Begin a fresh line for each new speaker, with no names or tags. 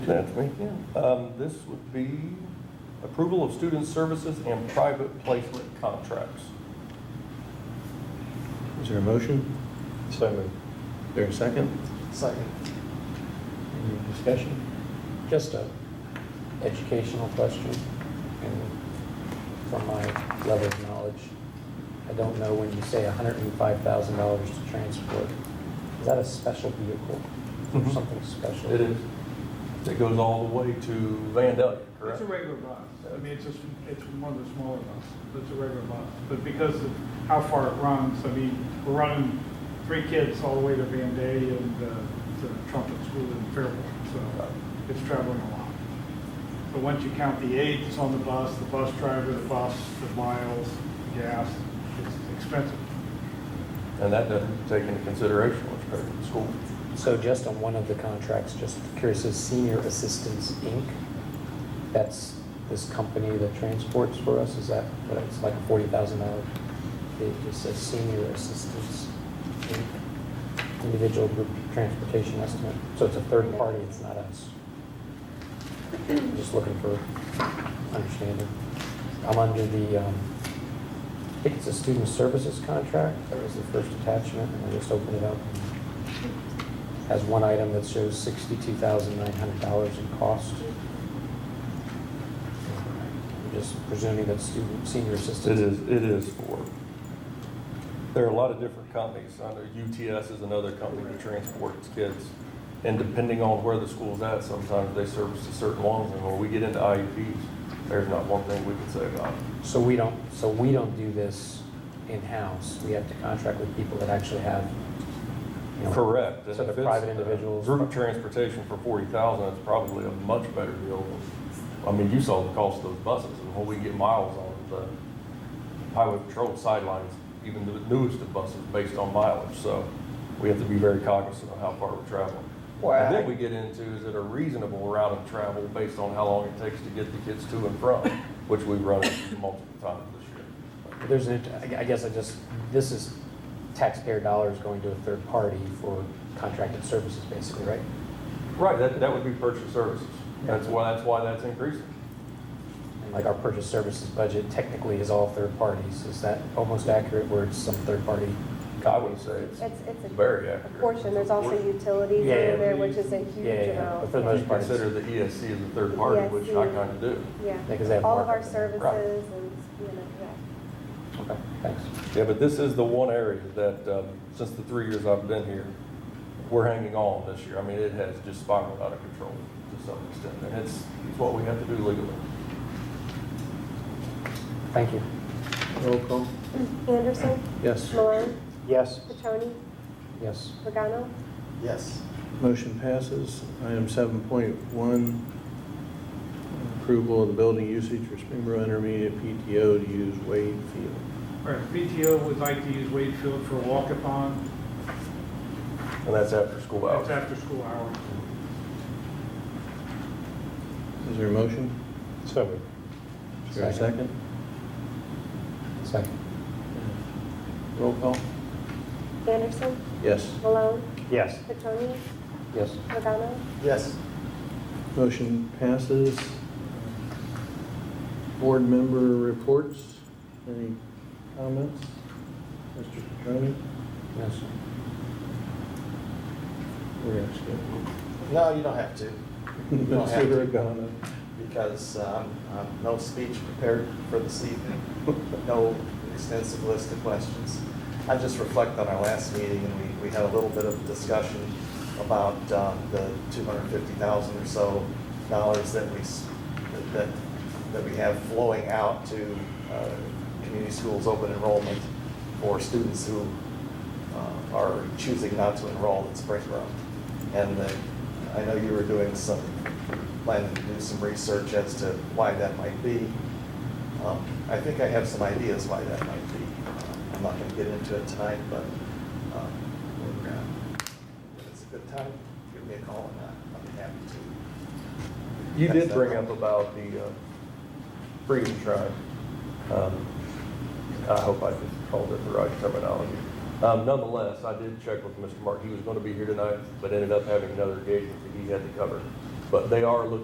Anthony?
Um, This would be approval of student services and private placement contracts.
Is there a motion?
So moved.
Is there a second?
Second.
Any discussion?
Just a educational question, and from my level of knowledge, I don't know when you say hundred and five thousand dollars to transport, is that a special vehicle or
Mhm.
something special?
It is, it goes all the way to Vandalia,
It's
correct?
a regular bus. I mean, it's just, it's one of the smaller buses. It's a regular bus. But because of how far it runs, I mean, we're running three kids all the way to Van Day and uh, to Trumpet School in Fairborn. So it's traveling a lot. But once you count the aides that's on the bus, the bus driver, the bus, the miles, the gas, it's expensive.
And that doesn't take into consideration what's paid to the school.
So just on one of the contracts, just curious, is Senior Assistance Inc., that's this company that transports for us, is that, what it's like a forty thousand dollar? It just says Senior Assistance Inc., individual group transportation estimate, so it's a third party, it's not us. I'm Just looking for understanding. I'm under the, um, I think it's a student services contract, that was the first attachment, and I just opened it up has one item that shows sixty-two thousand nine hundred dollars in cost. I'm just presuming that student, senior
It
assistance.
is, it is for, there are a lot of different companies. I know UTS is another company that transports kids. And depending on where the school's at, sometimes they service to certain ones. And when we get into IEPs, there's not one thing we can say about it.
So we don't, so we don't do this in-house. We have to contract with people that actually have, you know.
Correct.
So
And
the
if it's
private
the
individuals.
Group transportation for forty thousand, it's probably a much better deal. than- I mean, you saw the cost of those buses and what we get miles on the highway patrol sidelines, even the newest of buses based on mileage. So we have to be very cognizant of how far we're traveling. And then we get into, is it a reasonable route of travel based on how long it takes to get the kids to and from, which we've run into multiple times this year.
There's an, I- I guess I just, this is taxpayer dollars going to a third party for contracted services, basically, right?
Right, that, that would be purchase services. That's why, that's why that's increasing.
And like our purchase services budget technically is all third parties. Is that almost accurate where it's some third party?
I would say it's
It's, it's a-
very
a
accurate.
portion, there's also
Portion.
utilities
Yeah,
over
yeah.
there, which is a
Yeah, yeah,
huge
yeah. But for the
amount.
most
You
part, it's-
consider the E ESC as a third party, which I
ESC.
kind of do.
Yeah,
Yeah, 'cause they have
all of our
markup.
services and, you know, yeah.
Okay, thanks.
Yeah, but this is the one area that, um, since the three years I've been here, we're hanging on this year. I mean, it has just spiraled out of control to some extent, and it's, it's what we have to do legally.
Thank you.
Roll call?
Anderson,
Yes.
Malone,
Yes.
Petroni,
Yes.
Pagano,
Yes.
Motion passes. Item 7.1, approval of the building usage for Springboro Intermediate PTO to use Wade Field.
All right, PTO would like to use Wade Field for a walk-upon.
And that's after school hours.
That's after school hours.
Is there a motion?
So moved.
Is there a second?
Second.
Roll call?
Anderson,
Yes.
Malone,
Yes.
Petroni,
Yes.
Pagano,
Yes.
Motion passes. Board member reports. Any comments? Mr. Petroni?
Yes.
We're going to skip.
No, you don't have to, don't have to.
Mr. Regano?
because um, I'm no speech prepared for this evening, no extensive list of questions. I just reflect on our last meeting, and we, we had a little bit of discussion about um, the 250,000 or so dollars that we, s- that, that we have flowing out to uh, community schools open enrollment for students who uh, are choosing not to enroll in Springboro. And uh, I know you were doing some, planning to do some research as to why that might be. Um, I think I have some ideas why that might be. Um, I'm not going to get into it tonight, but um, when uh, when it's a good time, give me a call and I- I'll be happy to.
You did bring up about the, uh, Freedom Tribe. Um, I hope I just called it the right terminology. Um, Nonetheless, I did check with Mr. Mark. He was going to be here tonight, but ended up having another engagement that he had to cover. But they are looking